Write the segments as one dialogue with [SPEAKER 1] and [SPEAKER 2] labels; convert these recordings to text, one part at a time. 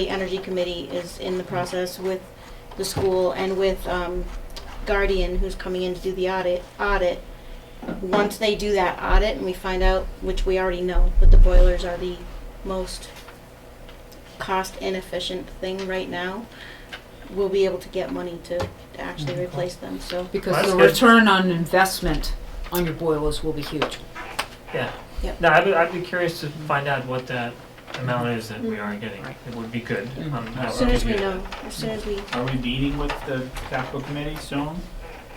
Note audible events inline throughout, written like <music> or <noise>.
[SPEAKER 1] The Energy Committee is in the process with the school and with um, Guardian, who's coming in to do the audit. Audit. Once they do that audit and we find out, which we already know, that the boilers are the most cost inefficient thing right now, we'll be able to get money to to actually replace them, so.
[SPEAKER 2] Because
[SPEAKER 3] That's
[SPEAKER 2] the
[SPEAKER 3] good.
[SPEAKER 2] return on investment on your boilers will be huge.
[SPEAKER 3] Yeah.
[SPEAKER 1] Yep.
[SPEAKER 3] No, I'd be, I'd be curious to find out what that amount is that we are getting.
[SPEAKER 2] Right.
[SPEAKER 3] It would be good.
[SPEAKER 2] Mhm.
[SPEAKER 3] Um, that
[SPEAKER 1] As
[SPEAKER 3] would
[SPEAKER 1] soon
[SPEAKER 3] be
[SPEAKER 1] as we
[SPEAKER 3] good.
[SPEAKER 1] know, as soon <laughs> as we,
[SPEAKER 4] Mm-hmm. Are we meeting with the capital committee soon?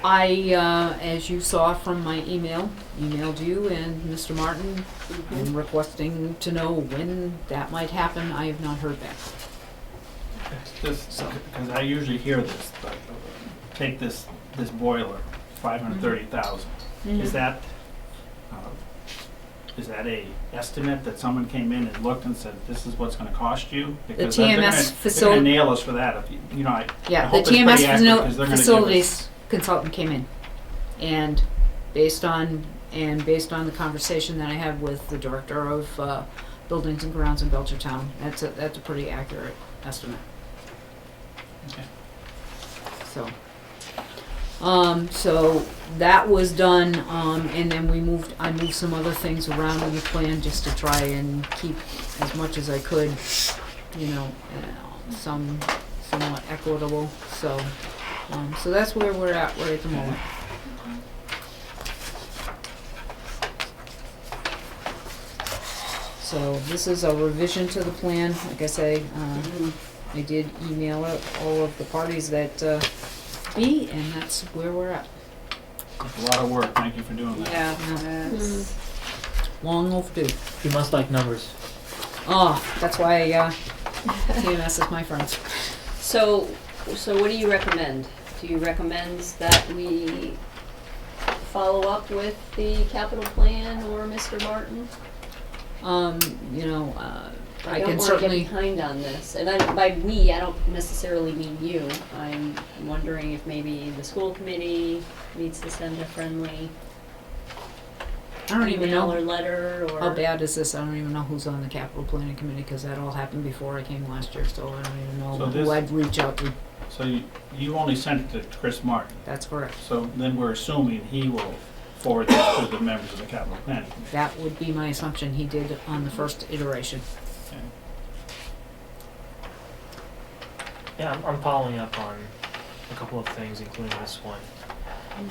[SPEAKER 2] I, uh, as you saw from my email, emailed you and Mr. Martin, and requesting to know when that might happen. I have not heard back.
[SPEAKER 4] Just,
[SPEAKER 2] So-
[SPEAKER 4] because I usually hear this, but take this, this boiler, five hundred thirty thousand.
[SPEAKER 1] Mm-hmm.
[SPEAKER 4] Is that, uh, is that a estimate that someone came in and looked and said, this is what's gonna cost you? Because they're- they're
[SPEAKER 2] TMS
[SPEAKER 4] gonna-
[SPEAKER 2] facil-
[SPEAKER 4] They're gonna nail us for that, if, you you know, I,
[SPEAKER 2] Yeah, the
[SPEAKER 4] hope it's pretty
[SPEAKER 2] TMS
[SPEAKER 4] accurate,
[SPEAKER 2] facil-
[SPEAKER 4] 'cause they're gonna give
[SPEAKER 2] facilities consultant came in, and based on, and based on the conversation that I had with the director of, uh, buildings and grounds in Belchertown, that's a, that's a pretty accurate estimate.
[SPEAKER 4] Okay.
[SPEAKER 2] So, um, so that was done, um, and then we moved, I moved some other things around in the plan just to try and keep as much as I could, you know, uh, some somewhat equitable, so, um, so that's where we're at right at the moment. So this is a revision to the plan, like I say, uh, I did email out all of the parties that, uh, be, and that's where we're at.
[SPEAKER 4] it's a lot of work, thank you for doing that.
[SPEAKER 5] Yeah,
[SPEAKER 2] Yeah.
[SPEAKER 5] that's-
[SPEAKER 2] Long overdue.
[SPEAKER 3] You must like numbers.
[SPEAKER 2] Oh, that's why, uh,
[SPEAKER 5] <laughs>
[SPEAKER 2] TMS is my friend.
[SPEAKER 5] So, so what do you recommend? Do you recommend that we follow up with the capital plan or Mr. Martin?
[SPEAKER 2] Um, you know, uh, I
[SPEAKER 5] don't
[SPEAKER 2] can
[SPEAKER 5] wanna get
[SPEAKER 2] certainly,
[SPEAKER 5] behind on this, and I, by we, I don't necessarily mean you. I'm wondering if maybe the school committee needs to send a friendly
[SPEAKER 2] I don't even know.
[SPEAKER 5] email or letter or.
[SPEAKER 2] How bad is this? I don't even know who's on the capital planning committee, because that all happened before I came last year, so I don't even know
[SPEAKER 4] So
[SPEAKER 2] who
[SPEAKER 4] this-
[SPEAKER 2] I'd reach out to.
[SPEAKER 4] So you, you only sent it to Chris Martin,
[SPEAKER 2] That's correct.
[SPEAKER 4] so then we're assuming he will forward this to the members of the capital planning committee.
[SPEAKER 2] That would be my assumption he did on the first iteration.
[SPEAKER 4] okay?
[SPEAKER 3] Yeah, I'm, I'm following up on a couple of things, including this one.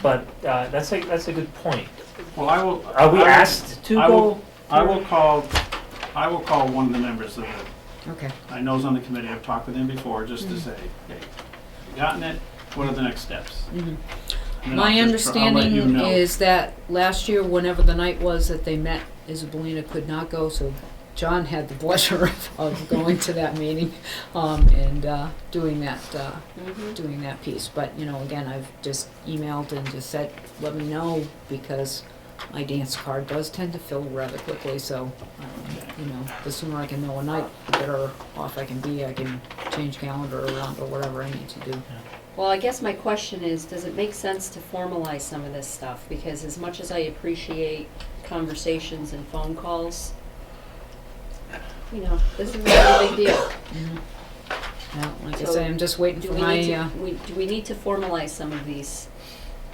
[SPEAKER 3] But uh, that's a that's a good point.
[SPEAKER 4] Well, I will.
[SPEAKER 3] Are we
[SPEAKER 4] I will-
[SPEAKER 3] asked to
[SPEAKER 4] I will-
[SPEAKER 3] go?
[SPEAKER 4] I will call, I will call one of the members of the,
[SPEAKER 2] Okay,
[SPEAKER 4] I know is on the committee, I've talked with him before, just
[SPEAKER 2] Mm-hmm.
[SPEAKER 4] to say, hey, you gotten it? What are the next steps?
[SPEAKER 2] mhm.
[SPEAKER 4] And then I'll
[SPEAKER 2] My
[SPEAKER 4] just tr- I'll let you
[SPEAKER 2] understanding
[SPEAKER 4] know.
[SPEAKER 2] is that last year, whenever the night was that they met, Isabelina could not go, so John had the <laughs> pleasure of- of going to that meeting, um, and, uh, doing that, uh,
[SPEAKER 5] Mhm.
[SPEAKER 2] doing that piece, but, you know, again, I've just emailed and just said, let me know, because my dance card does tend to fill rather quickly, so, um, you know, the sooner I can know a night, the better off I can be, I can change calendar around or whatever I need to do.
[SPEAKER 5] Well, I guess my question is, does it make sense to formalize some of this stuff? Because as much as I appreciate conversations and phone calls, you know, this is not a big deal.
[SPEAKER 2] Now, like I
[SPEAKER 5] Mm-hmm. So,
[SPEAKER 2] say, I'm just waiting
[SPEAKER 5] Do
[SPEAKER 2] for
[SPEAKER 5] we
[SPEAKER 2] my,
[SPEAKER 5] need to,
[SPEAKER 2] uh,
[SPEAKER 5] we, do we need to formalize some of these?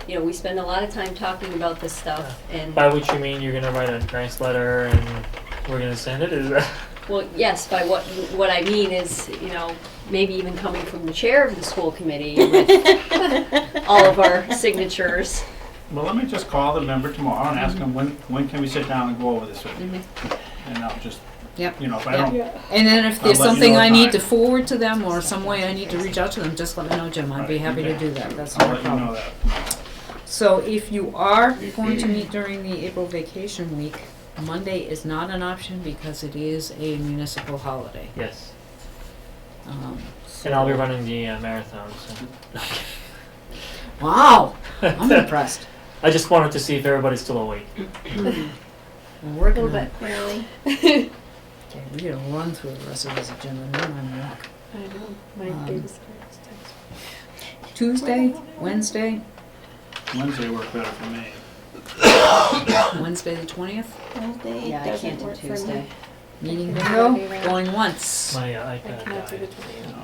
[SPEAKER 5] You know, we spend a lot of time talking about this stuff and,
[SPEAKER 3] By which you mean you're gonna write a nice letter and we're gonna send it? Is that?
[SPEAKER 5] well, yes, by what, what I mean is, you know, maybe even coming from the chair of the school
[SPEAKER 2] <laughs>
[SPEAKER 5] committee with all of our signatures.
[SPEAKER 4] Well, let me just call the member tomorrow and ask
[SPEAKER 2] Mm-hmm.
[SPEAKER 4] him, when, when can we sit down and go over this with you?
[SPEAKER 2] Mhm.
[SPEAKER 4] And I'll just,
[SPEAKER 2] Yep.
[SPEAKER 4] you know, if I don't,
[SPEAKER 2] and then if
[SPEAKER 4] I'll
[SPEAKER 2] there's
[SPEAKER 4] let you
[SPEAKER 2] something
[SPEAKER 4] know
[SPEAKER 2] I
[SPEAKER 4] if
[SPEAKER 2] need
[SPEAKER 4] I-
[SPEAKER 2] to forward to them, or some way I need to reach out to them, just let me know, Jim, I'd be
[SPEAKER 4] Right,
[SPEAKER 2] happy to
[SPEAKER 4] okay.
[SPEAKER 2] do that, that's
[SPEAKER 4] I'll
[SPEAKER 2] not a
[SPEAKER 4] let you
[SPEAKER 2] problem.
[SPEAKER 4] know that tomorrow.
[SPEAKER 2] So if you are going to meet during the April vacation week, Monday is not an option because it is a municipal holiday.
[SPEAKER 3] <laughs> Yes.
[SPEAKER 2] Um,
[SPEAKER 3] And I'll be running the uh, marathon. So.
[SPEAKER 2] Wow, I'm impressed.
[SPEAKER 3] I just wanted to see if everybody's still awake.
[SPEAKER 2] We're
[SPEAKER 1] a little
[SPEAKER 2] working on
[SPEAKER 1] bit,
[SPEAKER 2] it.
[SPEAKER 1] really.
[SPEAKER 2] <laughs> Okay, We're gonna run through the rest of this agenda, and then I'm gonna walk.
[SPEAKER 5] I know,
[SPEAKER 2] Um, Tuesday, Wednesday,
[SPEAKER 4] Wednesday worked better for me.
[SPEAKER 2] Wednesday the twentieth?
[SPEAKER 1] Wednesday
[SPEAKER 5] Yeah, I
[SPEAKER 1] doesn't
[SPEAKER 5] can't do
[SPEAKER 1] work for me.
[SPEAKER 5] Tuesday.
[SPEAKER 6] Meeting
[SPEAKER 2] Maybe
[SPEAKER 6] bingo,
[SPEAKER 2] around-
[SPEAKER 6] going once.
[SPEAKER 7] My uh,
[SPEAKER 2] I
[SPEAKER 7] iPad
[SPEAKER 2] cannot do
[SPEAKER 7] died.
[SPEAKER 3] uh,
[SPEAKER 2] the 28th.
[SPEAKER 3] you know?